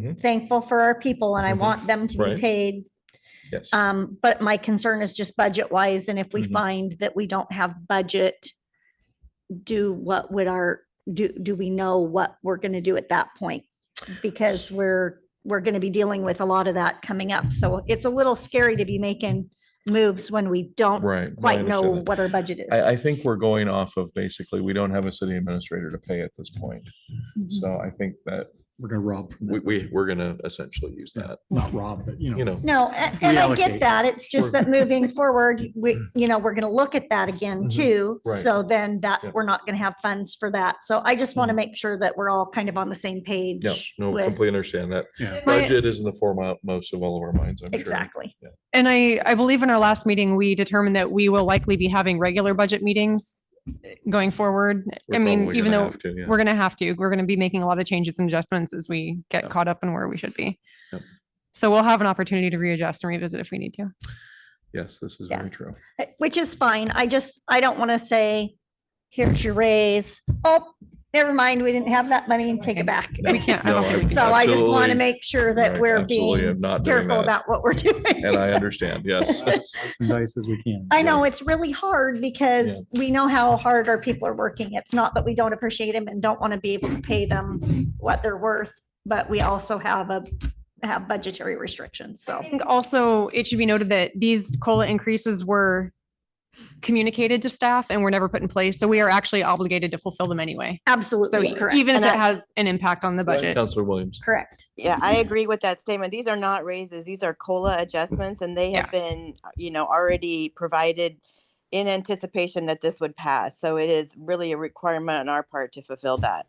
Mhm. thankful for our people and I Mhm. want them to be Right. paid. Yes. Um, but my concern is just budget wise, and if we Mhm. find that we don't have budget, do what would our, do, do we know what we're gonna do at that point? Because we're, we're gonna be dealing with a lot of that coming up, so it's a little scary to be making moves when we don't Right. no, I quite know understand that. what our budget is. I, I think we're going off of basically, we don't have a city administrator to pay at this point. Mhm. So I think that We're gonna rob, from we, that. we, we're gonna essentially use Yeah. that, not rob, but you you know, No, know. a- and I Reallocate. get that. It's just that moving forward, we, you know, we're gonna look at that again Mhm. too. Right. So then Yep. that, we're not gonna have funds for that. So I just want to Mhm. make sure that we're all kind of on the same page. No, no, with- completely understand that. yeah. My- Budget is in the foremost of all of our minds, I'm sure. Exactly. And I, I believe in our last meeting, we determined that we will likely be having regular budget meetings going forward. We're I mean, probably even gonna though have to, yeah. we're going to have to, we're going to be making a lot of changes and adjustments as we Yeah. get caught up in where we should be. Yep. So we'll have an opportunity to readjust and revisit if we need to. Yes, this is Yeah. very true. Uh, Which is fine. I just, I don't want to say, here's your raise. Oh, never mind. We didn't have that money and take it Okay. back. We can't, I No, don't think we I- can. So I just want Absolutely. to make sure that Right, we're absolutely. being I'm not doing careful that. about what we're doing. And I understand, yes. Slice and dice as we can. I know it's really hard because we know how hard our people are working. It's not that we don't appreciate them and don't want to be able to pay them what they're worth, but we also have a, have budgetary restrictions, I so. think also it should be noted that these COLA increases were communicated to staff and were never put in place. So we are actually obligated to fulfill them anyway. So Absolutely correct. even if And it I- has an impact on the budget. Counselor Williams. Correct. Yeah, I agree with that statement. These are not raises. These are COLA adjustments and they have been, uh, you know, already provided in anticipation that this would pass. So it is really a requirement on our part to fulfill that.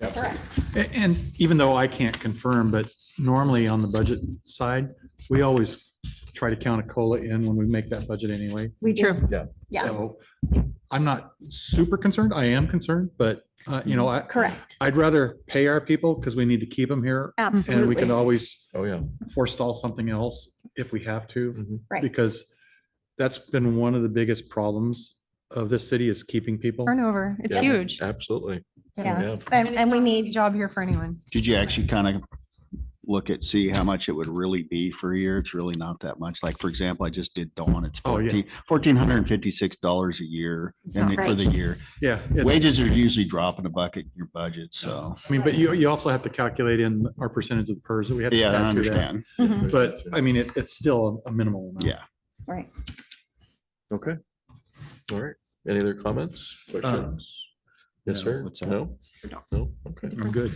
Correct. A- And even though I can't confirm, but normally on the budget side, we always try to count a COLA in when we make that budget anyway. We True. do. Yeah. Yeah, So I'm not super concerned. I am concerned, but, uh, you know, I, correct. I'd rather pay our people because we need to keep them here. And we can Absolutely. always Oh, yeah. forestall something else if we have to. Mhm. Right. Because that's been one of the biggest problems of this city is keeping people. Turnover, it's Yeah. huge. Absolutely. Yeah. Yeah. And, and we need, Job here for anyone. Did you actually kind of look at, see how much it would really be for a year? It's really not that much. Like, for example, I just did Dawn. It's Oh, yeah. fourteen, fourteen hundred and fifty-six dollars a year and not for the right. year. Yeah. it's- Wages are usually dropping a bucket in your budget, so, I mean, but you, you also have to calculate in our percentage of the PERS that we have. to yeah, I add to that. understand. Mhm. But I mean, it, it's still a minimal amount. Yeah. right. Okay. All right. Any other comments? Questions? Yes, no, sir? what's that? No? No? Okay. I'm good.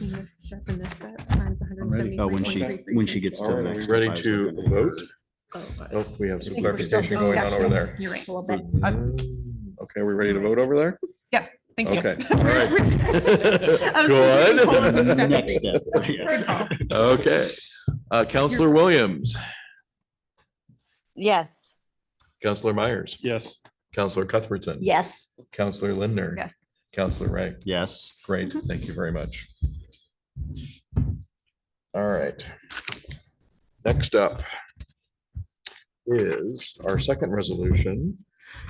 I'm ready. Oh, when she, when she gets to All the right, are next. we step, I ready was to looking at her. vote? Oh, we have some clarification still going on over there. You're right. Mm, Okay, are we ready to vote over there? Yes, thank you. Okay, all right. was thinking Collins Good. instead. Next step, yes. Okay. Uh, Counselor Williams, Yes. Counselor Myers, Yes. Counselor Cuthbertson. Yes. Counselor Lindner. Yes. Counselor Ray. Yes. Great, thank you very much. All right. Next up is our second resolution,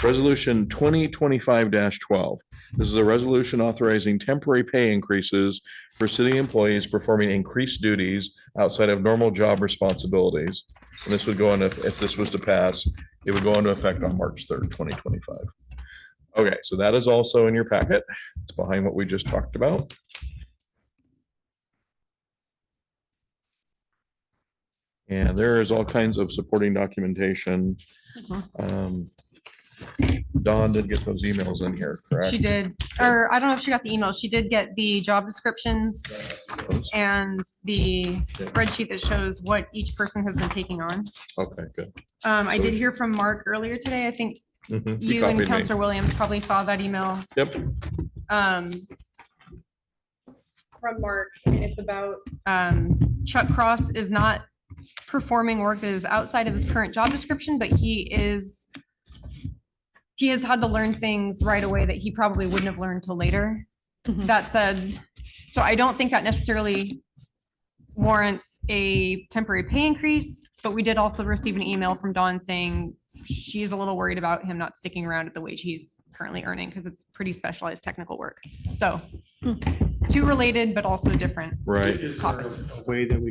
Resolution twenty twenty-five twelve. This is a resolution authorizing temporary pay increases for city employees performing increased duties outside of normal job responsibilities. And this would go into, if this was to pass, it would go into effect on March third, twenty twenty-five. Okay, so that is also in your packet. It's behind what we just talked about. And there is all kinds of supporting documentation. Um, Dawn did get those emails in here, correct? She did, or I don't know if she got the email. She did get the job descriptions and the spreadsheet that shows what each person has been taking on. Okay, good. Um, I So- did hear from Mark earlier today. I think Mhm, she you and copied me. Counselor Williams probably saw that email. Yep, um, from Mark, and it's about, um, Chuck Cross is not performing work that is outside of his current job description, but he is, he has had to learn things right away that he probably wouldn't have learned till later. Mhm. That said, so I don't think that necessarily warrants a temporary pay increase, but we did also receive an email from Dawn saying she's a little worried about him not sticking around at the wage he's currently earning because it's pretty specialized technical work. So two related, but also different right. Is there topics. a Way that we